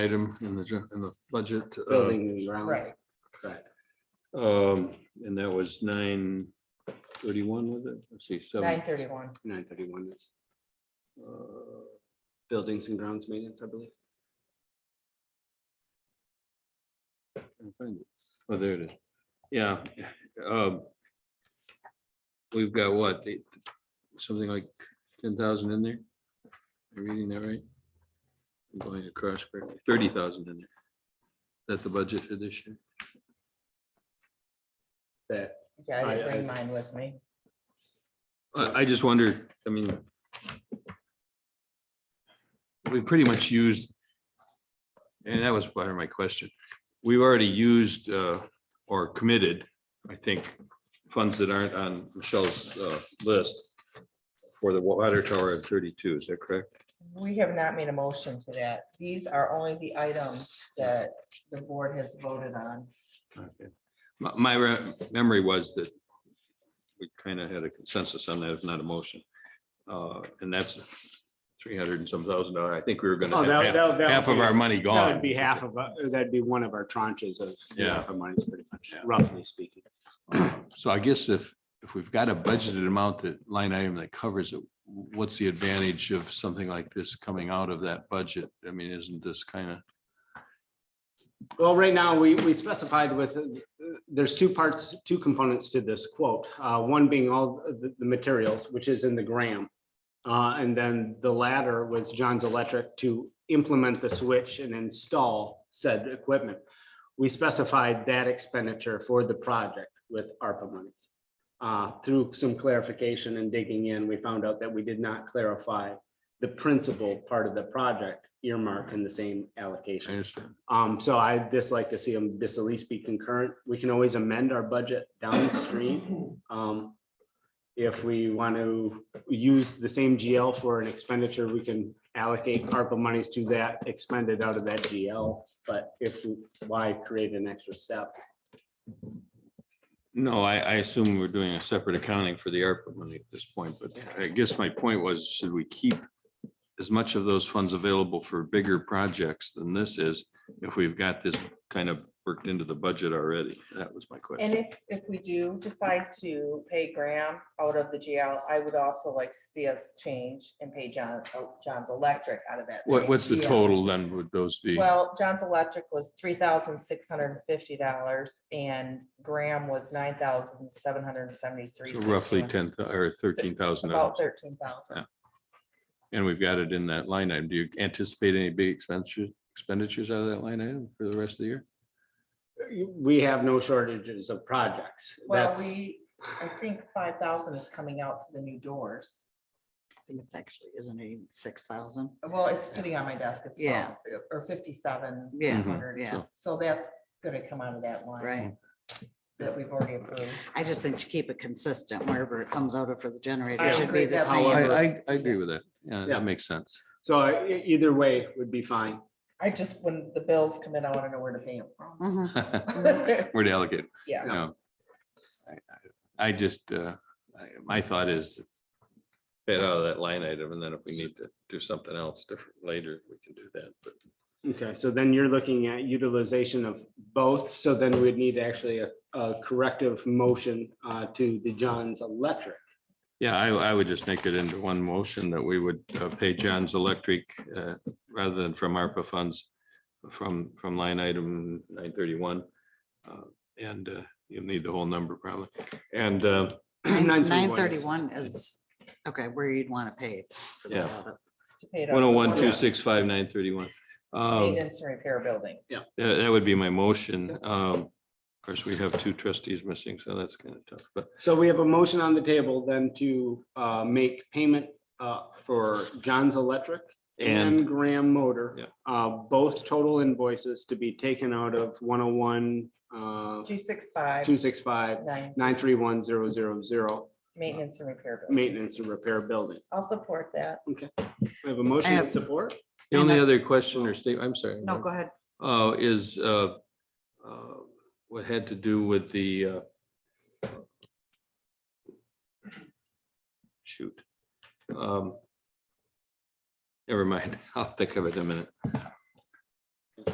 item in the, gen- in the budget. uh, building and grounds. Right. Correct. um, And that was nine thirty-one, was it? Let's see, seven. nine thirty-one. Nine thirty-one is uh, buildings and grounds maintenance, I believe. can't find it. Oh, there it is. Yeah. um, We've got what, eight- something like ten thousand in there? Am I reading that right? I'm going across correctly, thirty thousand in there. That's the budget for this year. That, Yeah, I I- didn't I- bring mine with me. I, I just wonder, I mean. We've pretty much used. And that was part of my question. We've already used uh, or committed, I think, funds that aren't on Michelle's uh, list. For the water tower at thirty-two, is that correct? We have not made a motion to that. These are only the items that the board has voted on. Okay. My, my re- memory was that. We kind of had a consensus on that, if not a motion. Uh, And that's three hundred and some thousand dollar. I think we were gonna. oh, have half- that, that. that half would of be- our money gone. That would be half of, uh, that'd be one of our tranches of. Yeah. half Our monies pretty much, Yeah. roughly speaking. So I guess if, if we've got a budgeted amount that line item that covers it, what's the advantage of something like this coming out of that budget? I mean, isn't this kind of, Well, right now, we, we specified with, uh, there's two parts, two components to this quote. Uh, one being all the, the materials, which is in the gram. Uh, and then the latter was John's Electric to implement the switch and install said equipment. We specified that expenditure for the project with ARPA monies. Uh, through some clarification and digging in, we found out that we did not clarify the principal part of the project earmark in the same I allocation. understand. Um, so I just like to see them, this at least be concurrent. We can always amend our budget downstream. Um, if we want to use the same GL for an expenditure, we can allocate ARPA monies to that expended out of that GL. But if, we- why create an extra step? No, I, I assume we're doing a separate accounting for the ARPA money at this point, but I guess my point was, should we keep as much of those funds available for bigger projects than this is, if we've got this kind of worked into the budget already? That was my And question. if, if we do decide to pay Graham out of the GL, I would also like to see us change and pay John, oh, John's Electric out of that. What, same what's the GL. total then? Would those be? Well, John's Electric was three thousand six hundred and fifty dollars and Graham was nine thousand seven hundred and seventy-three. So Roughly ten or thirteen thousand dollars. About thirteen thousand. Yeah. And we've got it in that line item. Do you anticipate any big expenditures, expenditures out of that line item for the rest of the year? We have no shortages of projects. Well, That's- we, I think five thousand is coming out for the new doors. think it's actually, isn't it six thousand? Well, it's sitting on my desk. It's. Yeah. twelve- Or fifty-seven. Mm-hmm. Yeah, hundred. yeah, So that's gonna come out of that line. right. That we've already approved. I just think to keep it consistent, wherever it comes out of for the generator I should agree be the that I, same. However- I, I agree with that. Yeah, Yeah. that makes sense. So e- either way would be fine. I just, when the bills come in, I wanna know where to pay them from. Mhm. We're delicate. Yeah. you know. I- I- I just, uh, I- my thought is get out of that line item and then if we need to do something else different later, we can do that. But Okay, so then you're looking at utilization of both, so then we'd need actually a, a corrective motion uh, to the John's Electric. Yeah, I, I would just make it into one motion that we would uh, pay John's Electric, uh, rather than from ARPA funds, from, from line item nine thirty-one. And uh, you'll need the whole number probably. And uh, Nine Nine thirty-one. thirty-one is, okay, where you'd want to pay. for the Yeah. water. To pay it off. one oh one, two six five, nine thirty-one. Um, Maintenance and repair building. That, that would be my motion. Um, Of course, we have two trustees missing, so that's kind of tough, but So we have a motion on the table then to uh, make payment uh, for John's Electric and And- Graham Motor. Yeah. uh, Both total invoices to be taken out of one oh one, uh, Two six five two six five, nine, nine three one zero zero zero, maintenance and repair. building. maintenance and repair building. I'll support that. We have a motion I and have- support? the And only I- other question or state, I'm sorry. No, Norm. go ahead. uh, is uh, uh, what had to do with the uh, shoot. Um, Never mind, I'll think of it in a minute.